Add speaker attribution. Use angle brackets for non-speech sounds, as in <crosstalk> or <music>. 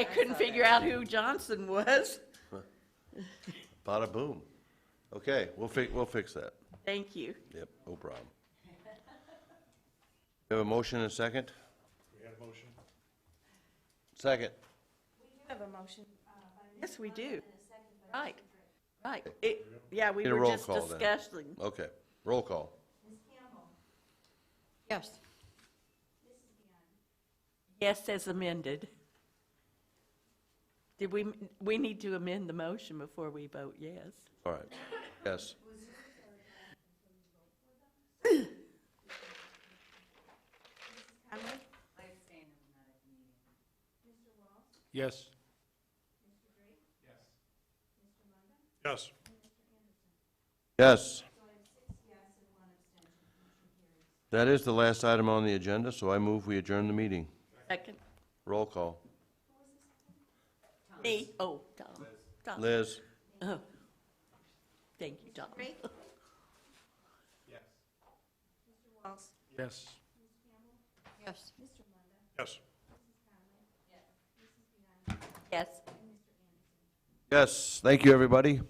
Speaker 1: I couldn't figure out who Johnson was.
Speaker 2: Bada boom. Okay, we'll fix, we'll fix that.
Speaker 1: Thank you.
Speaker 2: Yep, no problem. You have a motion and a second? We have a motion. Second.
Speaker 3: Have a motion.
Speaker 1: Yes, we do. Right, right. It, yeah, we
Speaker 2: Need a
Speaker 1: were
Speaker 2: roll
Speaker 1: just
Speaker 2: call then.
Speaker 1: discussing.
Speaker 2: Okay, roll call.
Speaker 1: Yes. Yes, as amended. Did we, we need to amend the motion before we vote yes?
Speaker 2: All right, yes.
Speaker 3: Conley?
Speaker 4: Yes.
Speaker 5: Yes.
Speaker 2: Yes. That is the last item on the agenda, so I move we adjourn the meeting.
Speaker 1: Second?
Speaker 2: Roll call.
Speaker 1: Me? Oh, Tom. Tom.
Speaker 2: Liz?
Speaker 1: Oh. Thank you, Tom. <laughs>
Speaker 3: Three? Yes. Mr. Walls?
Speaker 4: Yes.
Speaker 1: Yes.
Speaker 5: Yes.
Speaker 1: Yes.
Speaker 2: Yes, thank you, everybody.